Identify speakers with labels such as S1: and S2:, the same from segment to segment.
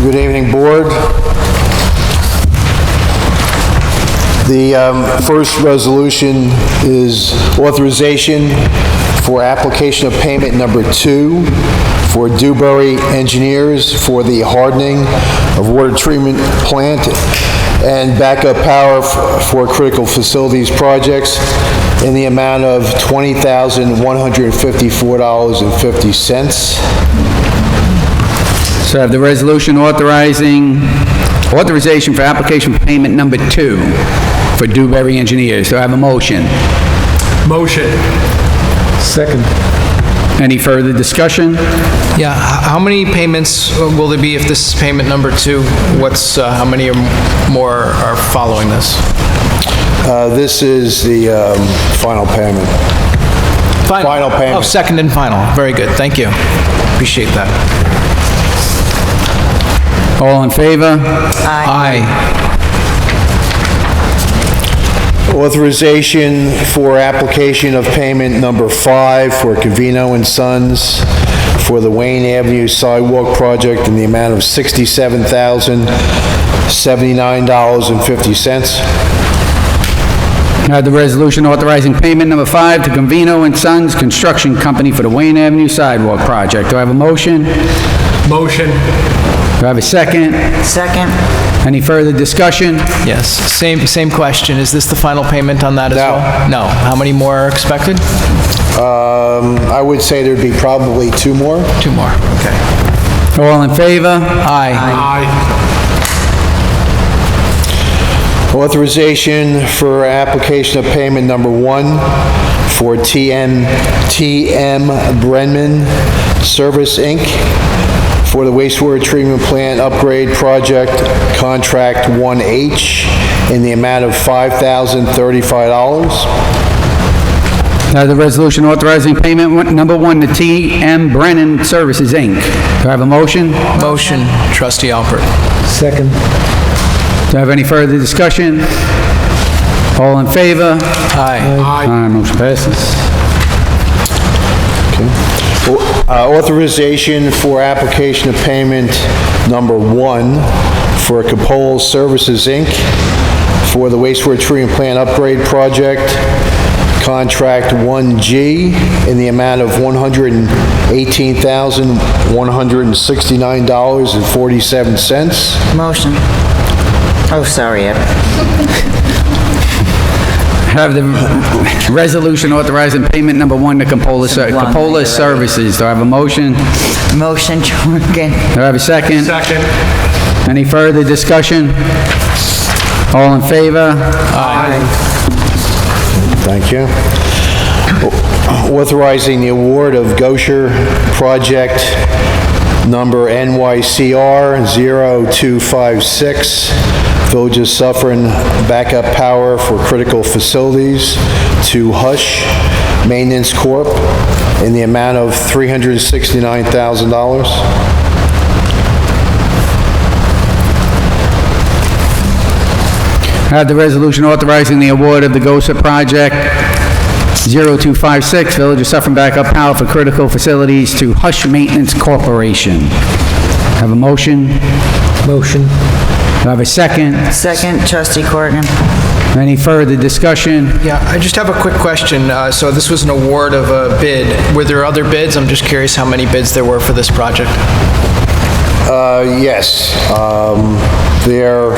S1: Good evening, Board. The um, first resolution is authorization for application of payment number two for Dewberry Engineers for the hardening of water treatment plant and backup power f- for critical facilities projects in the amount of $20,154.50.
S2: So I have the resolution authorizing, authorization for application payment number two for Dewberry Engineers. So I have a motion.
S3: Motion. Second.
S2: Any further discussion?
S4: Yeah, h- how many payments uh, will there be if this is payment number two? What's, uh, how many are more are following this?
S1: Uh, This is the um, final payment. Final payment.
S4: Oh, second and final. Very good, thank you. Appreciate that.
S2: All in favor?
S4: Aye.
S1: Authorization for application of payment number five for Covino and Sons for the Wayne Avenue Sidewalk Project in the amount of $67,079.50.
S2: I have the resolution authorizing payment number five to Convino and Sons Construction Company for the Wayne Avenue Sidewalk Project. Do I have a motion? Do
S3: Motion.
S2: I have a second?
S5: Second.
S2: Any further discussion?
S4: Yes, same, same question. Is this the final payment on that as
S1: No.
S4: well? No. How many more are expected?
S1: Um, I would say there'd be probably two more.
S4: Two more, okay.
S2: All in favor?
S4: Aye.
S3: Aye.
S1: Authorization for application of payment number one for TM, TM Brenman Service, Inc., for the wastewater treatment plant upgrade project, contract 1H, in the amount of $5,035.
S2: I have the resolution authorizing payment one- number one to T.M. Brennan Services, Inc. Do I have a motion? Do
S4: Motion, trustee Alpert.
S3: Second.
S2: I have any further discussion? All in favor?
S4: Aye.
S3: Aye.
S2: Aye, motion passes.
S1: Uh, Authorization for application of payment number one for Capole Services, Inc., for the wastewater treatment plant upgrade project, contract 1G, in the amount of $118,169.47.
S5: Motion. Oh, sorry, Ed.
S2: I Have the resolution authorizing payment number one to Capola Ser-
S5: One,
S2: Capola
S5: you're right.
S2: Services. Do I have a motion? Do
S5: Motion, Jorgen.
S2: I have a second?
S3: Second.
S2: Any further discussion? All in favor?
S3: Aye.
S1: Thank you. Authorizing the award of Gosher Project Number NYCR 0256, Village of Suffering Backup Power for Critical Facilities to Hush Maintenance Corp. in the amount of $369,000.
S2: I Have the resolution authorizing the award of the GOSA project 0256, Village of Suffering Backup Power for Critical Facilities to Hush Maintenance Corporation. Have a motion? Do
S3: Motion.
S2: I have a second?
S5: Second, trustee Corrigan.
S2: Any further discussion?
S4: Yeah, I just have a quick question. Uh, So this was an award of a bid. Were there other bids? I'm just curious how many bids there were for this project.
S1: Uh, Yes, um, there,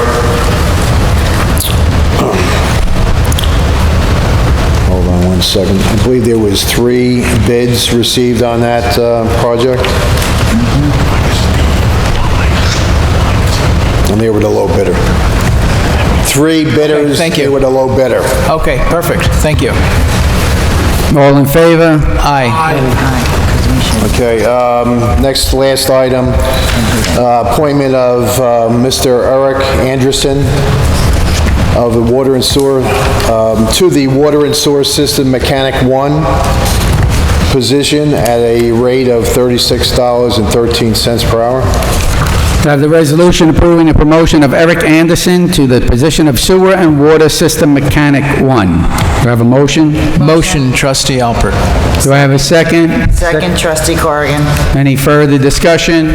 S1: hold on one second. I believe there was three bids received on that uh, project. And they were the low bidder. Three bidders.
S4: thank you.
S1: They were the low bidder.
S4: Okay, perfect. Thank you.
S2: All in favor?
S4: Aye.
S1: Okay, um, next, last item, uh, appointment of uh, Mr. Eric Anderson of the Water and Sewer, um, to the Water and Sewer System Mechanic 1 position at a rate of $36.13 per hour.
S2: I Have the resolution approving the promotion of Eric Anderson to the position of Sewer and Water System Mechanic 1. Do I have a motion?
S4: Motion, trustee Alpert.
S2: Do I have a second?
S5: Second, trustee Corrigan.
S2: Any further discussion?